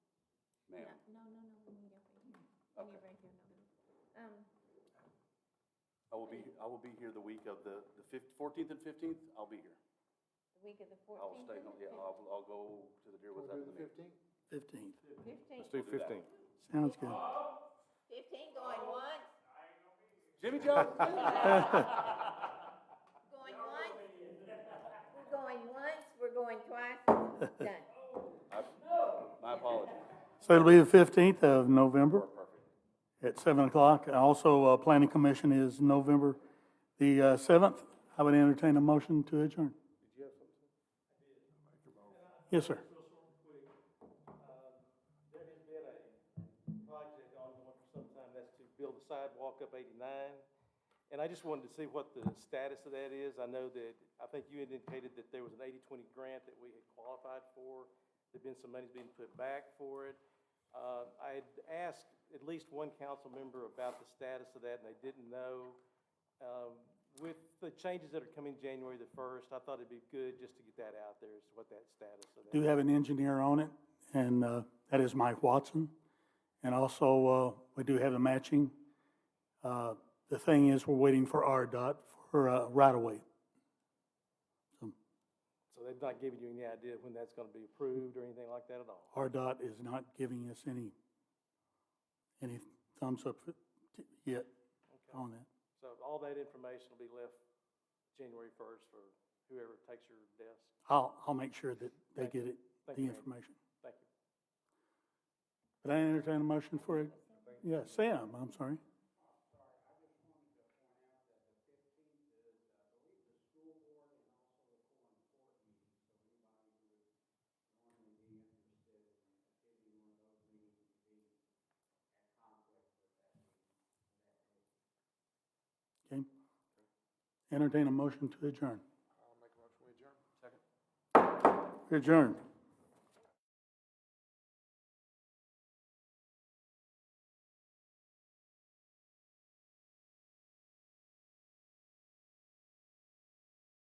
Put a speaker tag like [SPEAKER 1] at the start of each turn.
[SPEAKER 1] Um,
[SPEAKER 2] I will be, I will be here the week of the, the fif- 14th and fifteenth, I'll be here.
[SPEAKER 1] the week of the
[SPEAKER 2] I'll
[SPEAKER 1] fourteenth.
[SPEAKER 2] Oh, stay, no, yeah, uh, I'll, I'll go to the Deerwood side of the meeting.
[SPEAKER 3] 15th.
[SPEAKER 2] Let's
[SPEAKER 1] Fifteenth,
[SPEAKER 2] do that.
[SPEAKER 3] Sounds good.
[SPEAKER 1] fifteen going once,
[SPEAKER 2] Jimmy Joe,
[SPEAKER 1] going once. We're going once, we're going twice, done.
[SPEAKER 2] my apologies.
[SPEAKER 3] So it'll be the 15th of November
[SPEAKER 2] Perfect.
[SPEAKER 3] at 7 o'clock. Also, uh, Planning Commission is November the uh, 7th. I would entertain a motion to adjourn. Yes, sir.
[SPEAKER 4] There has been a project ongoing for some time, that's to build a sidewalk up eighty-nine. And I just wanted to see what the status of that is. I know that, I think you indicated that there was an 80-20 grant that we had qualified for. There'd been some money being put back for it. Uh, I had asked at least one council member about the status of that, and they didn't know. Um, with the changes that are coming January the first, I thought it'd be good just to get that out there, is what that status of that.
[SPEAKER 3] Do have an engineer on it, and uh, that is Mike Watson. And also, uh, we do have the matching. Uh, The thing is, we're waiting for RDOT for uh, right-of-way.
[SPEAKER 4] So they've not given you any idea when that's gonna be approved or anything like that at all?
[SPEAKER 3] RDOT is not giving us any, any thumbs up yet on that.
[SPEAKER 4] So all that information will be left January first for whoever takes your desk.
[SPEAKER 3] I'll, I'll make sure that they get it, the
[SPEAKER 4] Thank you, Randy.
[SPEAKER 3] information.
[SPEAKER 4] Thank you.
[SPEAKER 3] But I entertain a motion for it. Yeah, Sam, I'm sorry. Okay. Entertain a motion to adjourn. I'll make a motion, we adjourn. Second. Adjourned.